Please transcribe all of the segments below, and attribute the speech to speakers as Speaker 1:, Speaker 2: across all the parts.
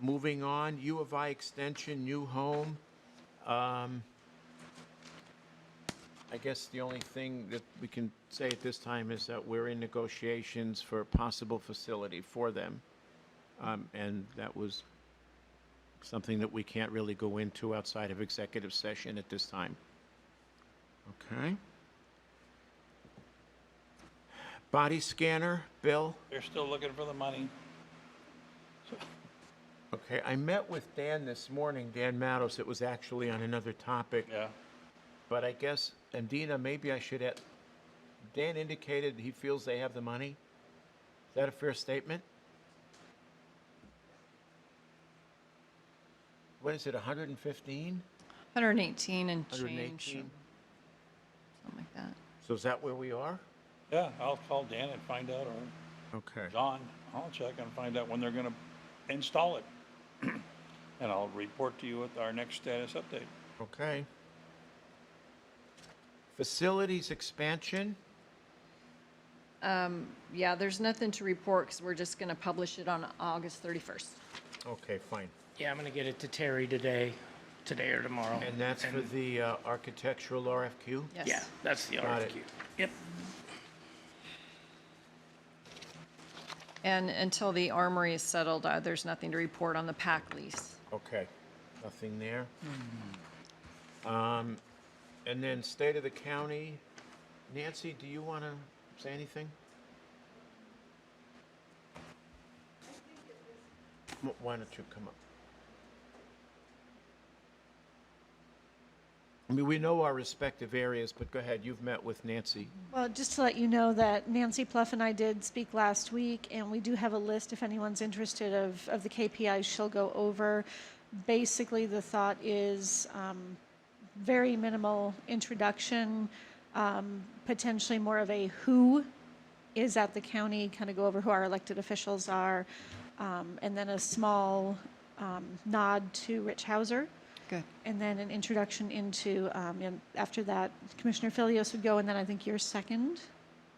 Speaker 1: Moving on, U of I Extension, new home. Um, I guess the only thing that we can say at this time is that we're in negotiations for a possible facility for them. Um, And that was something that we can't really go into outside of executive session at this time. Okay? Body scanner, Bill?
Speaker 2: They're still looking for the money.
Speaker 1: Okay, I met with Dan this morning, Dan Mattos, it was actually on another topic,
Speaker 2: Yeah.
Speaker 1: but I guess, and Dina, maybe I should add, Dan indicated he feels they have the money? Is that a fair statement? What is it, hundred and fifteen?
Speaker 3: 118 and
Speaker 1: Hundred and
Speaker 3: change,
Speaker 1: eighteen?
Speaker 3: something like that.
Speaker 1: So is that where we are?
Speaker 2: Yeah, I'll call Dan and find out, or
Speaker 1: Okay.
Speaker 2: John, I'll check and find out when they're gonna install it. And I'll report to you at our next status update.
Speaker 1: Okay. Facilities expansion?
Speaker 3: Yeah, there's nothing to report because we're just going to publish it on August 31st.
Speaker 1: Okay, fine.
Speaker 4: Yeah, I'm gonna get it to Terry today, today or tomorrow.
Speaker 1: And that's for the uh, architectural RFQ?
Speaker 3: Yes.
Speaker 4: Yeah, that's the
Speaker 1: Got it.
Speaker 4: RFQ. Yep.
Speaker 3: And until the armory is settled, uh, there's nothing to report on the pack lease.
Speaker 1: Okay, nothing there.
Speaker 5: Mm-hmm.
Speaker 1: Um, And then state of the county, Nancy, do you want to say anything? Wh- Why don't you come up? I mean, we know our respective areas, but go ahead, you've met with Nancy.
Speaker 5: Well, just to let you know that Nancy Pluff and I did speak last week, and we do have a list, if anyone's interested, of, of the KPIs she'll go over. Basically, the thought is um, very minimal introduction, um, potentially more of a who is at the county, kind of go over who our elected officials are, um, and then a small um, nod to Rich Hauser.
Speaker 3: Good.
Speaker 5: And then an introduction into, um, and after that, Commissioner Filios would go, and then I think you're second.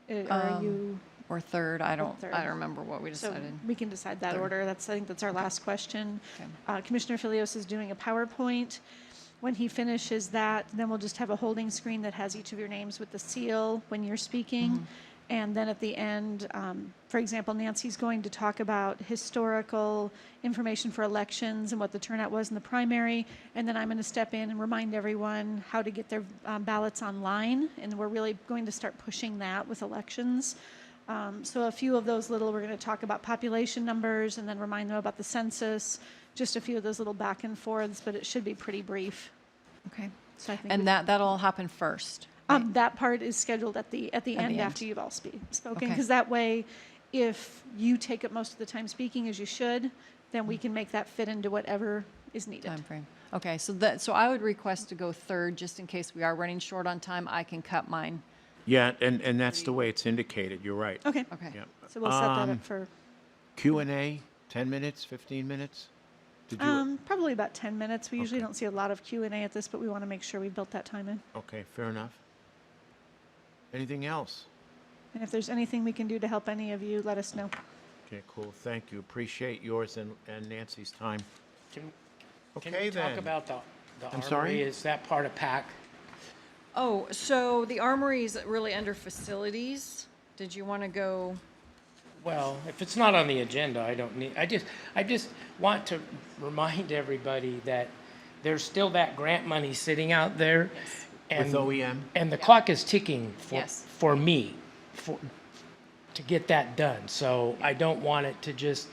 Speaker 5: Uh, Or are you,
Speaker 3: Or third, I don't, I
Speaker 5: third.
Speaker 3: don't remember what we
Speaker 5: so
Speaker 3: decided.
Speaker 5: we can decide that
Speaker 3: Third.
Speaker 5: order. That's, I think that's our last question.
Speaker 3: Okay.
Speaker 5: Uh, Commissioner Filios is doing a PowerPoint. When he finishes that, then we'll just have a holding screen that has each of your names with the seal when you're speaking.
Speaker 3: Mm-hmm.
Speaker 5: And then at the end, um, for example, Nancy's going to talk about historical information for elections and what the turnout was in the primary. And then I'm going to step in and remind everyone how to get their um, ballots online. And we're really going to start pushing that with elections. Um, so a few of those little, we're going to talk about population numbers and then remind them about the census, just a few of those little back and forths, but it should be pretty brief.
Speaker 3: Okay.
Speaker 5: So I think we-
Speaker 3: And that, that'll happen first.
Speaker 5: um, that part is scheduled at the, at the
Speaker 3: At the
Speaker 5: end
Speaker 3: end.
Speaker 5: after you've all spe- spoken,
Speaker 3: Okay.
Speaker 5: because that way, if you take up most of the time speaking as you should, then
Speaker 3: Mm.
Speaker 5: we can make that fit into whatever is needed.
Speaker 3: Timeframe. Okay, so that, so I would request to go third, just in case we are running short on time, I can cut mine.
Speaker 1: Yeah, and, and that's the way it's indicated, you're right.
Speaker 5: Okay,
Speaker 3: Okay.
Speaker 1: Yeah.
Speaker 5: so we'll set that
Speaker 1: Um,
Speaker 5: up for,
Speaker 1: Q and A, 10 minutes, 15 minutes? Did you?
Speaker 5: um, probably about ten minutes. We usually
Speaker 1: Okay.
Speaker 5: don't see a lot of Q and A at this, but we want to make sure we built that time in.
Speaker 1: Okay, fair enough. Anything else?
Speaker 5: And if there's anything we can do to help any of you, let us know.
Speaker 1: Okay, cool, thank you. Appreciate yours and and Nancy's time.
Speaker 4: Can can
Speaker 1: Okay,
Speaker 4: we talk
Speaker 1: then.
Speaker 4: about the, the
Speaker 1: I'm sorry?
Speaker 4: armory? Is that part of PAC?
Speaker 3: Oh, so the armory is really under facilities. Did you want to go?
Speaker 4: Well, if it's not on the agenda, I don't need, I just, I just want to remind everybody that there's still that grant money sitting out there. and-
Speaker 1: With E OEM?
Speaker 4: And the clock is ticking for,
Speaker 3: Yes.
Speaker 4: for me, for, to get that done. So I don't want it to just,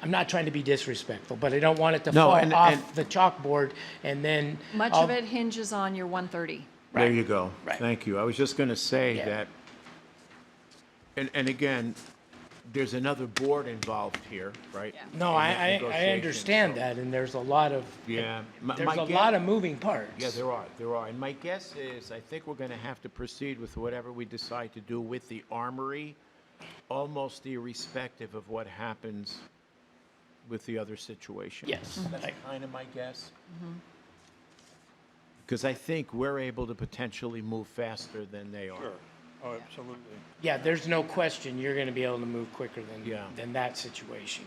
Speaker 4: I'm not trying to be disrespectful, but I don't want it to
Speaker 1: No,
Speaker 4: fall
Speaker 1: and-
Speaker 4: off
Speaker 1: and-
Speaker 4: the chalkboard and then.
Speaker 3: Much
Speaker 4: I'll-
Speaker 3: of it hinges on your 130.
Speaker 1: There
Speaker 4: Right,
Speaker 1: you go.
Speaker 4: right.
Speaker 1: Thank you. I was just going to say
Speaker 4: Yeah.
Speaker 1: that, and, and again, there's another board involved here, right? in that
Speaker 4: No, I, I, I
Speaker 1: negotiation,
Speaker 4: understand
Speaker 1: so-
Speaker 4: that, and there's a lot of.
Speaker 1: Yeah. My-
Speaker 4: There's
Speaker 1: my
Speaker 4: a
Speaker 1: guess-
Speaker 4: lot of moving parts.
Speaker 1: Yeah, there are, there are. And my guess is, I think we're going to have to proceed with whatever we decide to do with the armory, almost irrespective of what happens with the other situation.
Speaker 4: Yes,
Speaker 3: Mm-hmm.
Speaker 1: That's
Speaker 4: I-
Speaker 1: kind of my guess. Because I think we're able to potentially move faster than they are.
Speaker 2: Sure. Oh, absolutely.
Speaker 4: Yeah, there's no question you're gonna be able to move quicker than,
Speaker 1: Yeah.
Speaker 4: than that situation.